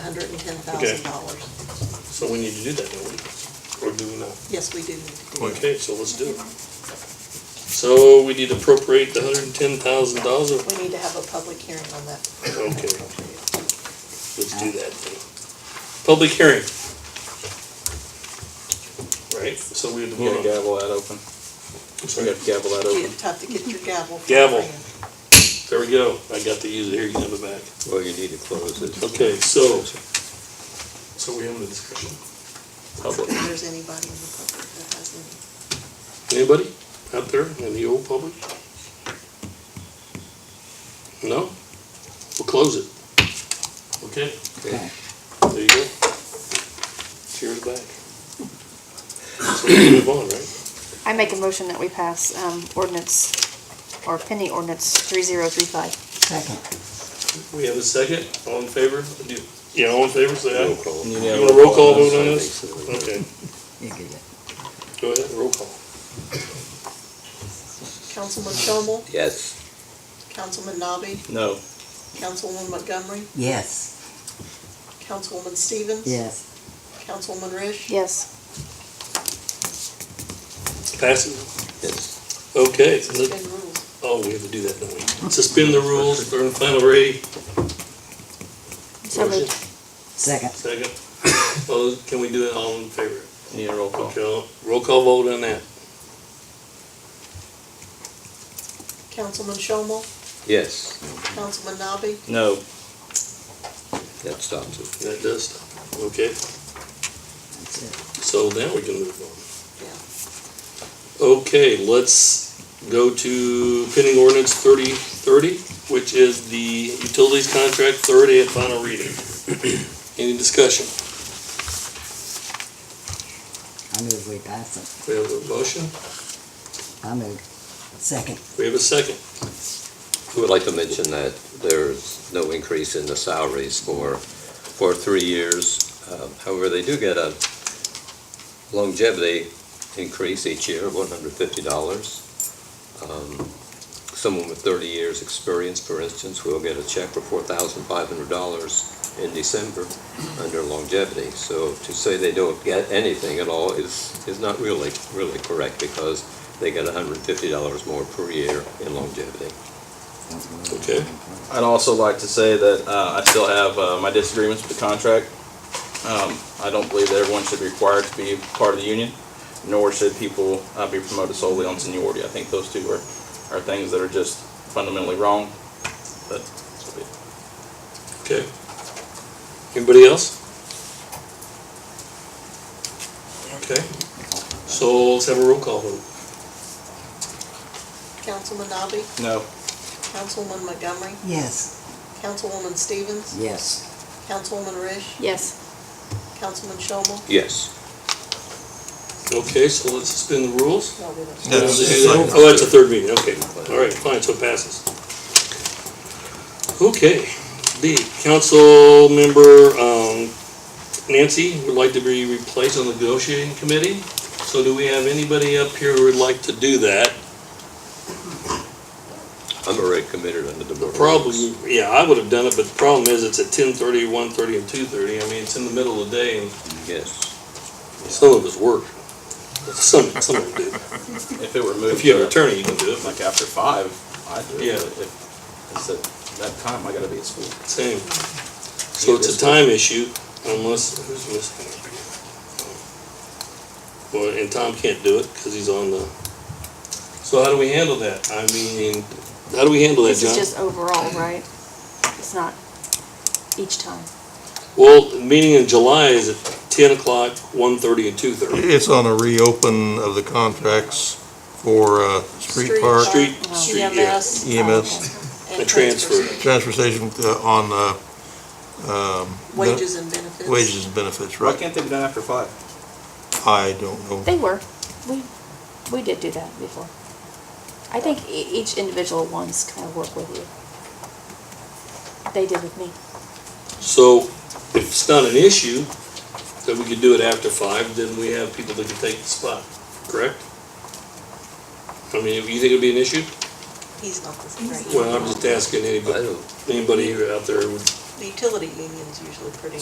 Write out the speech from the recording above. hundred and ten thousand dollars. So we need to do that, don't we? Or do we not? Yes, we do need to do it. Okay, so let's do it. So we need to appropriate the hundred and ten thousand dollars, okay, We need to have a public hearing on that. let's do that then. Public hearing. Right, so we have to You gotta vote on. gavel that open. I'm You sorry. gotta gavel that You open. have to get your gavel. Gavel. There we go, I got to use it, here, you can have it back. Well, you need to close it. Okay, so. So we have the discussion. Public. If there's anybody in the public that has any. Anybody out there in the old public? No? We'll close it. Okay, Okay. there you go. Cheers back. So we can move on, right? I make a motion that we pass um, ordinance, or pending ordinance 3035. We have a second, all in favor? Do- Yeah, all in favor, say Roll aye. call. You You gotta- want a roll call vote on this? Okay, You get it. go ahead, roll call. Councilman Shomel, Yes, Councilman Nabi, No, Councilwoman Montgomery, Yes, Councilwoman Stevens. yes, Councilwoman Rish. Yes. Passes? yes. Okay, so let- Suspend rules. oh, we have to do that, don't we? Suspend the rules, third and final reading. So moved. second, Second. Oh, can we do it all in favor? you need a roll call. Okay, roll call vote on that. Councilman Shomel, Yes, Councilman Nabi, No, that stops it. That does stop. Okay, that's it. so now we can move on. yeah. Okay, let's go to pending ordinance thirty thirty, which is the utilities contract third and final reading. Any discussion? I move we pass We have a motion, it. I move. Second, we have a second. We would like to mention that there's no increase in the salaries for, for three years. Um, However, they do get a longevity increase each year of one hundred fifty dollars. Um, Someone with thirty years' experience, for instance, will get a check for four thousand five hundred dollars in December under longevity. So to say they don't get anything at all is, is not really, really correct because they get hundred and fifty dollars more per year in longevity. Okay. I'd also like to say that uh, I still have uh, my disagreements with the contract. Um, I don't believe that everyone should be required to be part of the union, nor should people uh, be promoted solely on seniority. I think those two are, are things that are just fundamentally wrong. But Okay. Anybody else? Okay, so let's have a roll call vote. Councilman Nabi, no, Councilwoman Montgomery, yes, Councilwoman Stevens, yes, Councilwoman Rish, Yes. Councilman Shomel. Yes. Okay, so let's suspend the rules. No, we don't. Oh, that's a third meeting, okay. All right, fine, so it passes. Okay, B, council member um, Nancy would like to be replaced on the negotiating committee. So do we have anybody up here who would like to do that? I'm already committed under the board. Problem, rules. yeah, I would have done it, but the problem is it's at ten thirty, one thirty, and two thirty. I mean, it's in the middle of the day and Yes. some of us work. Some, some of us do. if it were moved, If you have to- an attorney, you can do it. like after five, I do. Yeah. It, but if it's at that time, I got to be at school. Same. So it's a time issue unless, who's missing? Well, and Tom can't do it because he's on the, so how do we handle that? I mean, how do we handle that, This is John? just overall, right? It's not each time. Well, the meeting in July is at ten o'clock, one thirty and two thirty. It's on a reopen of the contracts for uh, street park, Street, Wow. street, yeah. EMS EMS, and A transfer. transfers. transfer station uh, on uh, um, Wages and benefits. wages and benefits, Why right? can't they be done after five? I don't know. They were. We, we did do that before. I think e- each individual ones kind of work with you. They did with me. So if it's not an issue, then we could do it after five, then we have people that can take the spot, correct? I mean, you think it'd be an issue? He's not the, Well, I'm just asking I anybody. don't, anybody out there would the utility union's usually pretty